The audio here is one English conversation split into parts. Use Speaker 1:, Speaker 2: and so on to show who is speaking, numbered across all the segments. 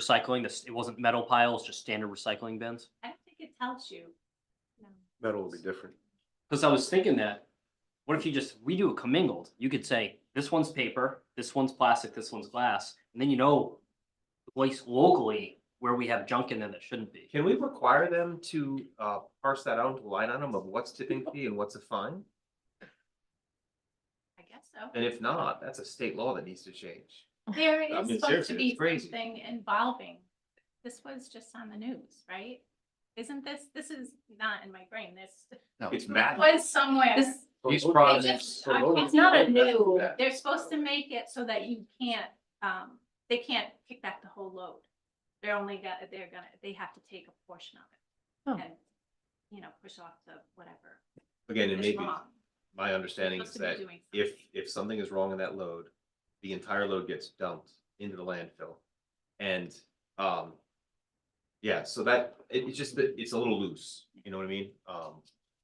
Speaker 1: recycling, this, it wasn't metal piles, just standard recycling bins?
Speaker 2: I don't think it tells you. No.
Speaker 3: Metal will be different.
Speaker 1: Cause I was thinking that, what if you just, we do a commingled, you could say, this one's paper, this one's plastic, this one's glass, and then you know. the Place locally where we have junk in there that shouldn't be.
Speaker 3: Can we require them to uh parse that out into line item of what's tipping fee and what's a fine?
Speaker 2: I guess so.
Speaker 3: And if not, that's a state law that needs to change.
Speaker 2: There
Speaker 4: I
Speaker 2: is
Speaker 4: mean,
Speaker 2: supposed to
Speaker 4: seriously,
Speaker 2: be
Speaker 3: it's crazy.
Speaker 2: something involving, this was just on the news, right? Isn't this, this is not in my brain, this
Speaker 5: No.
Speaker 4: It's
Speaker 2: it
Speaker 4: mad.
Speaker 2: was somewhere.
Speaker 6: This-
Speaker 4: These
Speaker 2: They
Speaker 4: products.
Speaker 2: just-
Speaker 4: for
Speaker 2: I-
Speaker 4: loading
Speaker 2: It's not a
Speaker 4: stuff back to
Speaker 2: new,
Speaker 4: back.
Speaker 2: they're supposed to make it so that you can't, um, they can't kick back the whole load. They're only got, they're gonna, they have to take a portion of
Speaker 6: Oh.
Speaker 2: it. And, you know, push off the whatever
Speaker 3: Again, and
Speaker 2: is
Speaker 3: maybe
Speaker 2: wrong.
Speaker 3: my understanding is
Speaker 2: Supposed to
Speaker 3: that
Speaker 2: be doing
Speaker 3: if
Speaker 2: something.
Speaker 3: if something is wrong in that load, the entire load gets dumped into the landfill. And um, yeah, so that it it's just that it's a little loose, you know what I mean? Um,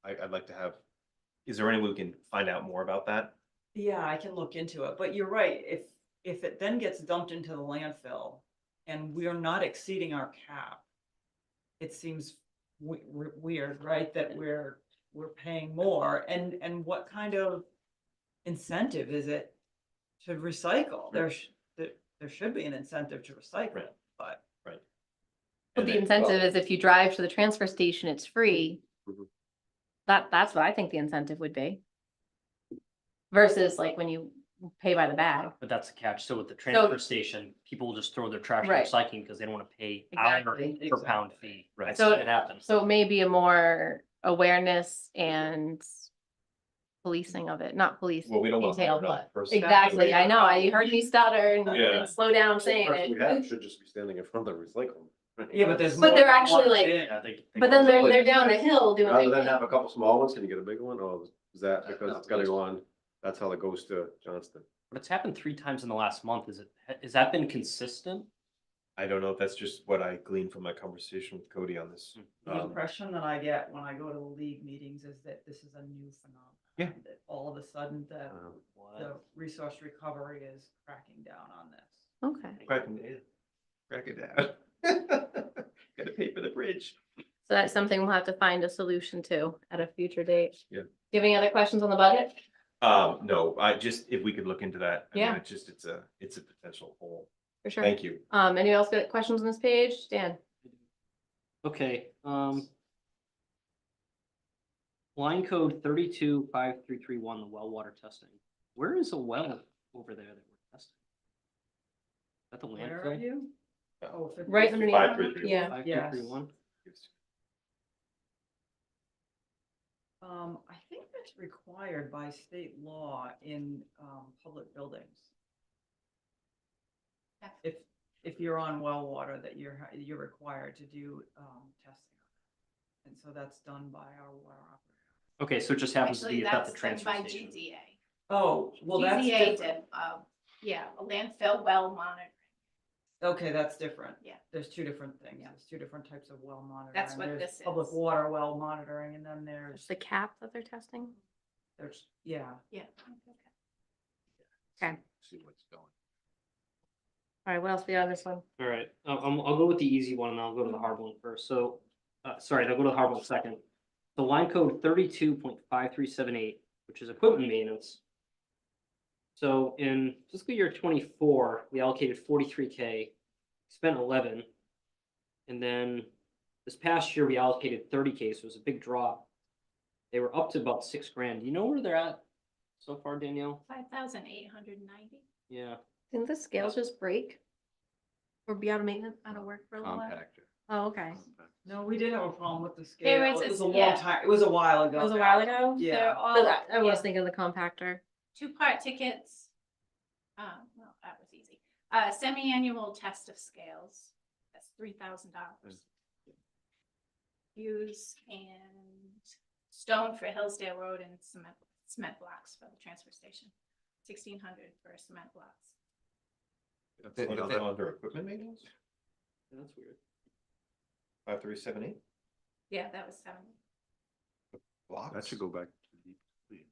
Speaker 3: I I'd like to have, is there any way we can find out more about that?
Speaker 7: Yeah, I can look into it, but you're right, if, if it then gets dumped into the landfill and we are not exceeding our cap. It seems we, weird, right, that we're, we're paying more and, and what kind of incentive is it to recycle? There sh there, there should be an incentive to recycle,
Speaker 3: Right.
Speaker 7: but
Speaker 6: Well,
Speaker 3: And
Speaker 6: the
Speaker 3: then-
Speaker 6: incentive is if you drive to the transfer station, it's free.
Speaker 4: Mm-hmm.
Speaker 3: Mhm.
Speaker 6: That, that's what I think the incentive would be. Versus like when you pay by the bag.
Speaker 1: But that's the catch. So with the transfer station, people will just throw their trash in
Speaker 6: Right.
Speaker 1: recycling because they don't want to pay hour
Speaker 6: Exactly.
Speaker 1: per pound fee.
Speaker 3: Right.
Speaker 1: I've
Speaker 6: So-
Speaker 1: seen it happen.
Speaker 6: So maybe a more awareness and policing of it, not police.
Speaker 3: Well, we don't want.
Speaker 6: Detail,
Speaker 3: no,
Speaker 6: but-
Speaker 3: first-
Speaker 6: Exactly, I know, I heard you stutter and-
Speaker 4: Yeah.
Speaker 6: and slow down saying it.
Speaker 4: should just be standing in front of the recycling.
Speaker 7: yeah, but there's.
Speaker 6: But
Speaker 7: more
Speaker 6: they're actually,
Speaker 7: than
Speaker 6: like-
Speaker 7: it.
Speaker 1: Yeah, they- they go-
Speaker 6: But then they're, they're down the hill doing.
Speaker 4: Rather than
Speaker 6: like-
Speaker 4: have a couple small ones, can you get a big one, or is that because it's gotta go on, that's how it goes to Johnston?
Speaker 1: But it's happened three times in the last month. Is it, has that been consistent?
Speaker 3: I don't know if that's just what I gleaned from my conversation with Cody on this.
Speaker 7: The
Speaker 3: Um,
Speaker 7: impression that I get when I go to the league meetings is that this is a new phenomenon.
Speaker 3: Yeah.
Speaker 7: That all of a sudden the,
Speaker 4: Um,
Speaker 7: the resource recovery is cracking down on this.
Speaker 6: Okay,
Speaker 3: Mm. Crack it down. Crack it down. Gotta pay for the bridge.
Speaker 6: so that's something we'll have to find a solution to at a future date.
Speaker 3: Yeah.
Speaker 6: Do you have any other questions on the budget?
Speaker 3: Um, no, I just, if we could look into that. I mean,
Speaker 6: Yeah.
Speaker 3: It's just, it's a, it's a potential hole.
Speaker 6: For sure.
Speaker 3: Thank you.
Speaker 6: Um, anyone else got questions on this page? Dan?
Speaker 1: Okay, um. Line code thirty-two five three three one, the well water testing. Where is a well over there that we're testing? Is that the
Speaker 7: Where are
Speaker 1: landfill?
Speaker 7: you? Oh, 50.
Speaker 6: Right underneath.
Speaker 4: Five, three, three.
Speaker 6: Yeah,
Speaker 1: Five three
Speaker 7: Yes.
Speaker 1: three one?
Speaker 7: Um, I think that's required by state law in, um, public buildings.
Speaker 2: Yeah.
Speaker 7: If, if you're on well water that you're, ha- you're required to do, um, testing. And so that's done by our water operator.
Speaker 1: Okay, so it just happens to
Speaker 2: Actually,
Speaker 1: be at
Speaker 2: that's
Speaker 1: the
Speaker 2: done
Speaker 1: transfer
Speaker 2: by
Speaker 1: station.
Speaker 2: GZA.
Speaker 7: Oh, well,
Speaker 2: GZA
Speaker 7: that's different.
Speaker 2: did, um, yeah, a landfill well monitor.
Speaker 7: Okay, that's different.
Speaker 2: Yeah.
Speaker 7: There's two different things.
Speaker 2: Yeah.
Speaker 7: There's two different types of well monitoring.
Speaker 2: That's what
Speaker 7: There's
Speaker 2: this
Speaker 7: Public
Speaker 2: is.
Speaker 7: water well monitoring and then
Speaker 6: It's
Speaker 7: there's,
Speaker 6: the cap that they're testing.
Speaker 7: there's, yeah.
Speaker 2: Yeah.
Speaker 6: Okay,
Speaker 4: See what's going.
Speaker 6: all right, what else we got on this one?
Speaker 1: All right, I'll, I'll I'll go with the easy one and I'll go to the hard one first. So, uh, sorry, I'll go to the hard one second. The line code thirty-two point five three seven eight, which is equipment maintenance. So in fiscal year twenty-four, we allocated forty-three K, spent eleven. And then this past year, we allocated thirty K, so it was a big drop. They were up to about six grand. Do you know where they're at so far, Danielle?
Speaker 2: Five thousand eight hundred ninety.
Speaker 1: Yeah,
Speaker 6: Didn't the scales just break? Or be out of maintenance, out of work for a little while?
Speaker 4: Compactor.
Speaker 6: Oh, okay.
Speaker 7: No, we did have a problem with the
Speaker 2: There
Speaker 7: scale.
Speaker 2: is
Speaker 7: It
Speaker 2: a-
Speaker 7: was a long
Speaker 2: yeah.
Speaker 7: time, it was a while ago.
Speaker 6: It was a
Speaker 7: now.
Speaker 6: while ago?
Speaker 7: Yeah.
Speaker 6: But
Speaker 2: They're
Speaker 6: I- I
Speaker 2: all, yeah,
Speaker 6: was thinking of the compactor.
Speaker 2: two-part tickets. Uh, well, that was easy. Uh, semi-annual test of scales, that's three thousand dollars. Hughes and Stone for Hillsdale Road and cement, cement blocks for the transfer station, sixteen hundred for cement blocks.
Speaker 3: That's
Speaker 5: Th-
Speaker 3: what
Speaker 5: th-
Speaker 3: I'm Under equipment maintenance,
Speaker 1: that's weird.
Speaker 3: five, three, seven, eight
Speaker 2: Yeah, that was seven.
Speaker 3: blocks.
Speaker 4: That should go back to the.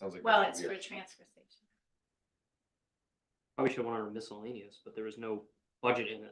Speaker 3: Sounds like.
Speaker 2: Well,
Speaker 3: that
Speaker 2: it's
Speaker 3: should
Speaker 2: for
Speaker 3: be
Speaker 2: a
Speaker 3: a-
Speaker 2: transfer station.
Speaker 1: Probably should have went under miscellaneous, but there was no budget in it.